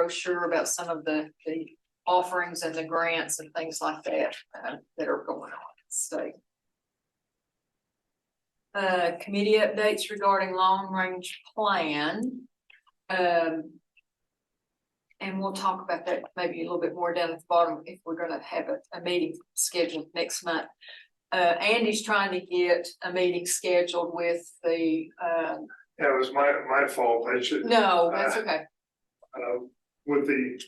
brochure about some of the, the offerings and the grants and things like that, uh, that are going on, so. Uh, committee updates regarding long range plan. Um. And we'll talk about that maybe a little bit more down at the bottom if we're gonna have a, a meeting scheduled next month. Uh, Andy's trying to get a meeting scheduled with the, uh, Yeah, it was my, my fault, I should, no, that's okay, uh, with the.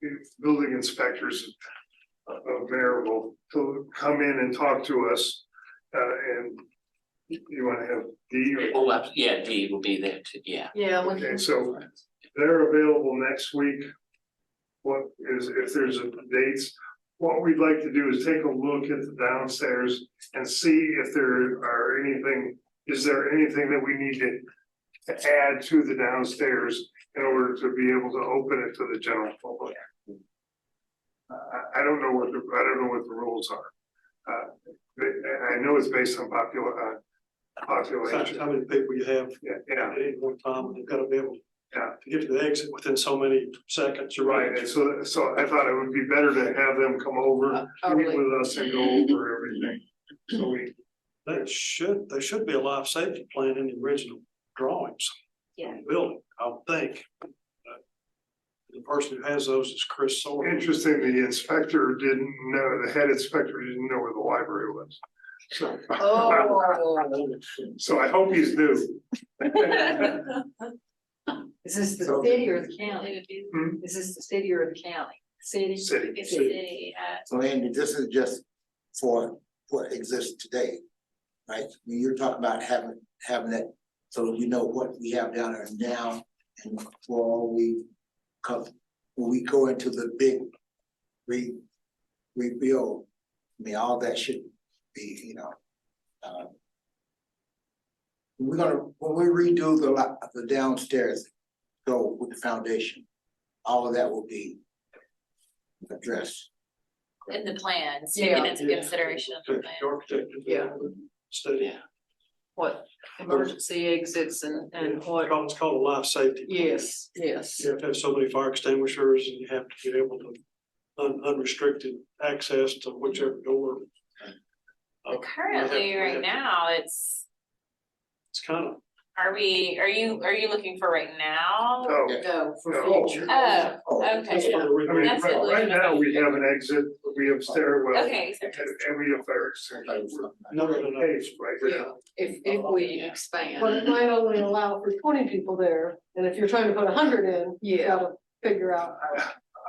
the Building inspectors of of Maryville to come in and talk to us, uh, and. You wanna have D or, Oh, abs- yeah, D will be there too, yeah. yeah, we okay, so they're available next week. What is, if there's a dates, what we'd like to do is take a look at the downstairs and see if there are anything. Is there anything that we need to, to add to the downstairs in order to be able to open it to the general public? I, I- I don't know what the, I don't know what the rules are. Uh, but, and I know it's based on popular, uh, Fact, population, How many people you have yeah, yeah. at any one time, and they've got to be able. Yeah. To get to the exit within so many seconds, you're Right, right. and so, so I thought it would be better to have them come over, meet totally. with us and go over everything. So we, That should, there should be a life safety plan in the original drawings. Yeah. Building, I would think. Uh, The person who has those is Chris Sawyer. interesting, the inspector didn't know, the head inspector didn't know where the library was. So, Oh. so I hope he's new. Is this the So- city or the county? Hmm? Is this the city or the county? City? City. It's a city, uh, So Andy, this is just for what exists today, right? I mean, You're talking about having, having it, so you know what we have down there now and for all we come, when we go into the big re, rebuild, I mean, all that should be, you know, uh, we're gonna, when we redo the lot, the downstairs, go with the foundation, all of that will be addressed. in the plans, Yeah. taken into consideration. in the The plan. architect. did that Yeah. Study. What emergency exits and, and what? It's called a life safety. plan. Yes, yes. You have to have so many fire extinguishers and you have to be able to un- unrestricted access to whichever door. Uh, Currently, we have- right now, it's, It's kind of, are we, are you, are you looking for right now? So, No, No. for future. Oh, Oh, that's okay, one of Oh, the I reasons. mean, That's it, right right now, we have an exit, we have stairwell. okay, so And and we have fire extinguisher. No, no, no, no. Page right there. Yeah, if, if we But expand, it might only allow for twenty people there, and if you're trying to put hundred in, you yeah, gotta figure out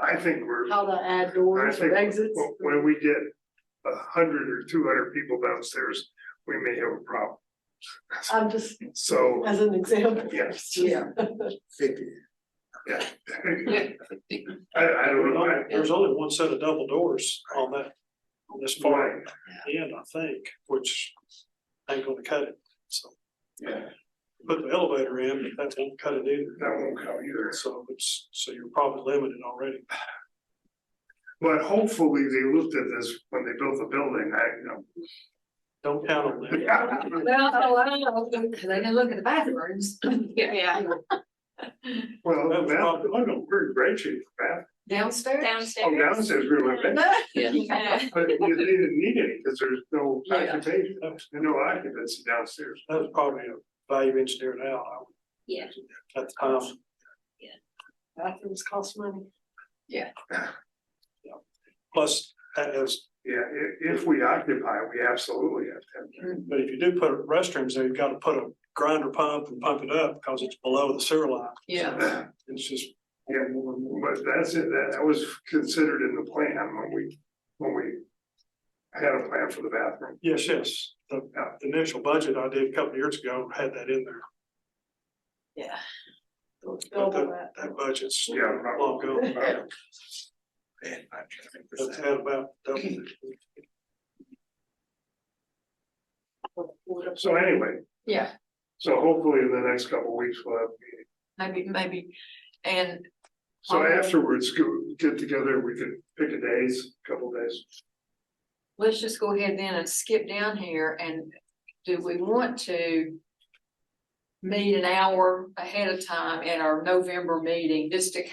I think we're, how to add I doors think or exits. w- when we get a hundred or two hundred people downstairs, we may have a problem. I'm just, So, as an example. Yes. Yeah. fifty. I, Yeah. I don't know, I, There's only one set of double doors on that, on this far Right. end, I think, which ain't gonna cut it. So yeah, put the elevator in, but that won't cut it either. that won't count either. So it's, so you're probably limited already. But hopefully they looked at this when they built the building, I, you know. Don't count on that. well, oh, I don't know, because I didn't look at the bathrooms. yeah, Well, That the was bathroom, probably- I know, we're in great shape, bath, Downstairs? downstairs. oh, downstairs, we went back, Yeah. but they didn't need any, because there's no Yeah. occupation, there's no occupancy downstairs. That was probably a value engineered out. I would- Yeah. At the time, Bathrooms cost money. plus that is, Yeah, i- if we occupy, we absolutely have to have. that. but if you do put restrooms there, you've got to put a grinder pump and pump it up because it's below the sewer line. Yeah, It's just Yeah, but that's it, that, that was considered in the plan when we, when we had a plan for the bathroom. Yes, yes, the, uh, the initial budget I did a couple of years ago had that in there, yeah. but Double that, that. that budget's Yeah, long probably. gone. Yeah. That's had about double. So anyway, Yeah, so hopefully in the next couple of weeks we'll have, maybe, maybe, and, so Okay. afterwards, go, get together, we could pick a days, couple days. let's just go ahead then and skip down here and do we want to meet an hour ahead of time in our November meeting, just to kind